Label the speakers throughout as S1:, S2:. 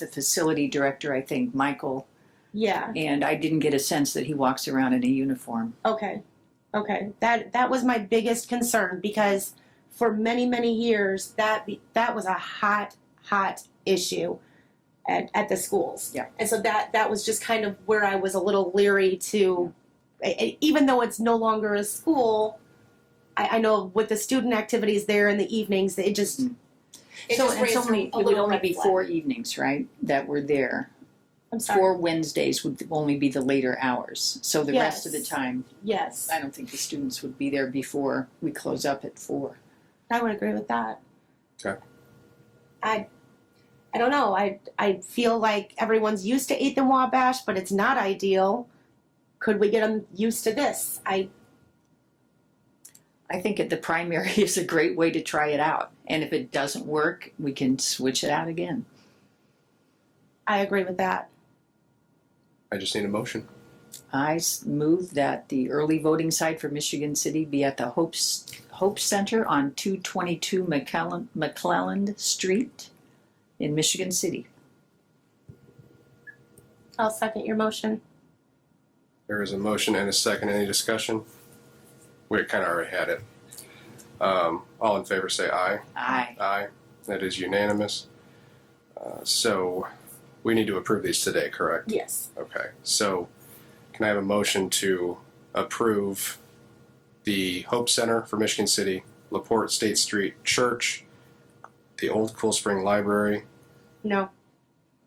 S1: the facility director, I think, Michael,
S2: Yeah.
S1: and I didn't get a sense that he walks around in a uniform.
S2: Okay. Okay. That that was my biggest concern because for many many years that be, that was a hot hot issue at, at the schools.
S1: Yeah.
S2: And so that that was just kind of where I was a little leery to e- e- even though it's no longer a school I, I know with the student activities there in the evenings, it just
S1: Mhm.
S2: it
S1: so
S2: just
S1: it's
S2: raised
S1: only
S2: a
S1: it would
S2: little
S1: only
S2: red
S1: be
S2: flag.
S1: four evenings, right? That were there.
S2: I'm sorry.
S1: Four Wednesdays would only be the later hours. So the rest of the
S2: Yes.
S1: time,
S2: Yes.
S1: I don't think the students would be there before we close up at four.
S2: I would agree with that.
S3: Okay.
S2: I, I don't know. I I feel like everyone's used to eighth and Wabash, but it's not ideal. Could we get them used to this? I
S1: I think at the primary is a great way to try it out. And if it doesn't work, we can switch it out again.
S2: I agree with that.
S3: I just need a motion.
S1: I s- move that the early voting site for Michigan City be at the Hope, S- Hope Center on 222 McClellan, McClelland Street in Michigan City.
S2: I'll second your motion.
S3: There is a motion and a second. Any discussion? We kind of already had it. Um, all in favor say aye.
S1: Aye.
S3: Aye. That is unanimous. Uh, so we need to approve these today, correct?
S2: Yes.
S3: Okay. So can I have a motion to approve the Hope Center for Michigan City, LaPorte State Street Church, the Old Cool Spring Library?
S2: No.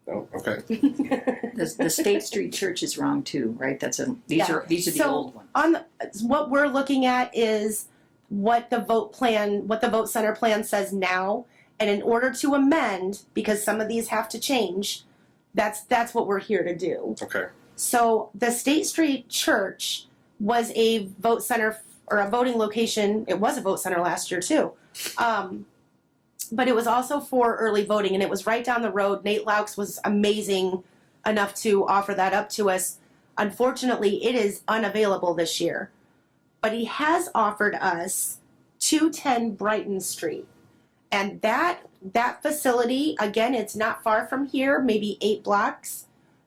S3: Oh, okay.
S1: The, the State Street Church is wrong too, right? That's a, these
S2: Yeah.
S1: are, these are the
S2: So-
S1: old ones.
S2: On the, what we're looking at is what the vote plan, what the vote center plan says now, and in order to amend, because some of these have to change, that's that's what we're here to do.
S3: Okay.
S2: So the State Street Church was a vote center or a voting location. It was a vote center last year too. Um, but it was also for early voting and it was right down the road. Nate Laux was amazing enough to offer that up to us. Unfortunately, it is unavailable this year. But he has offered us 210 Brighton Street. And that that facility, again, it's not far from here, maybe 8 blocks.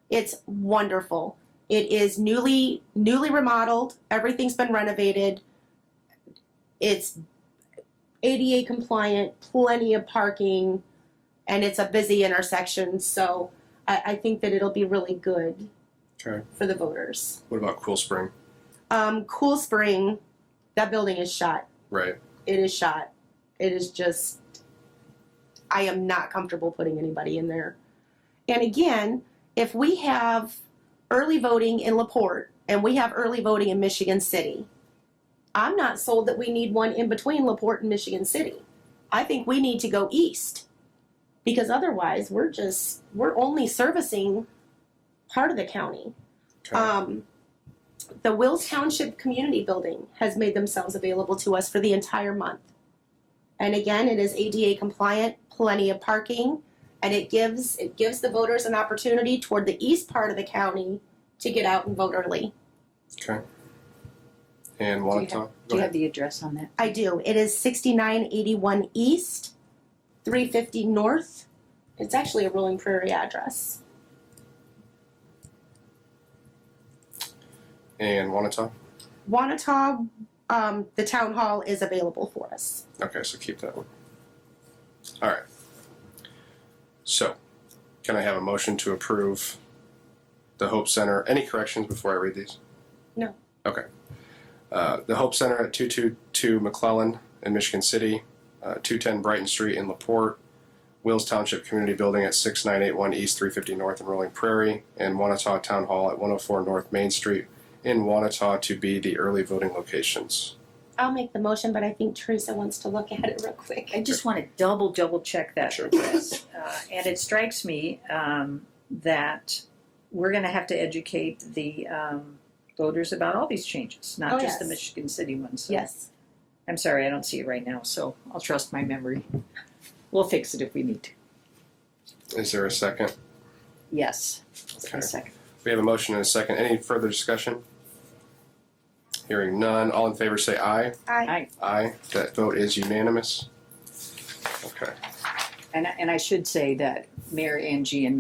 S2: It's wonderful. It is newly newly remodeled. Everything's been renovated. It's ADA compliant, plenty of parking, and it's a busy intersection. So I, I think that it'll be really good
S3: Okay.
S2: for the voters.
S3: What about Cool Spring?
S2: Um, cool Spring, that building is shot.
S3: Right.
S2: It is shot. It is just. I am not comfortable putting anybody in there. And again, if we have early voting in LaPorte and we have early voting in Michigan City, I'm not sold that we need one in between LaPorte and Michigan City. I think we need to go east because otherwise we're just we're only servicing part of the county.
S3: Okay.
S2: Um, the Wills Township Community Building has made themselves available to us for the entire month. And again, it is ADA compliant, plenty of parking, and it gives, it gives the voters an opportunity toward the east part of the county to get out and vote early.
S3: Okay. And one
S1: you
S3: at a time.
S1: Do
S3: Go
S1: you have
S3: ahead.
S1: the address on that?
S2: I do, it is sixty-nine eighty-one east, three fifty north. It's actually a Rolling Prairie address.
S3: And one at a time.
S2: Wanata, um, the town hall is available for us.
S3: Okay, so keep that one. All right. So, can I have a motion to approve the Hope Center? Any corrections before I read these?
S2: No.
S3: Okay. Uh, the Hope Center at 222 McClellan in Michigan City, uh, 210 Brighton Street in LaPorte, Wills Township Community Building at 6981 East 350 North in Rolling Prairie, and Wanata Town Hall at 104 North Main Street in Wanata to be the early voting locations.
S2: I'll make the motion, but I think Teresa wants to look at it real quick.
S1: I just want to double, double check that
S3: Sure.
S1: address. Uh, and it strikes me um, that we're going to have to educate the um, voters about all these changes, not
S2: Oh,
S1: just the
S2: yes.
S1: Michigan City ones. So
S2: Yes.
S1: I'm sorry, I don't see it right now, so I'll trust my memory. We'll fix it if we need to.
S3: Is there a second?
S1: Yes.
S3: Okay.
S1: A second.
S3: We have a motion and a second. Any further discussion? Hearing none. All in favor say aye.
S2: I,
S1: Aye.
S3: Aye. That vote is unanimous. Okay.
S1: And, I- and I should say that Mayor Angie and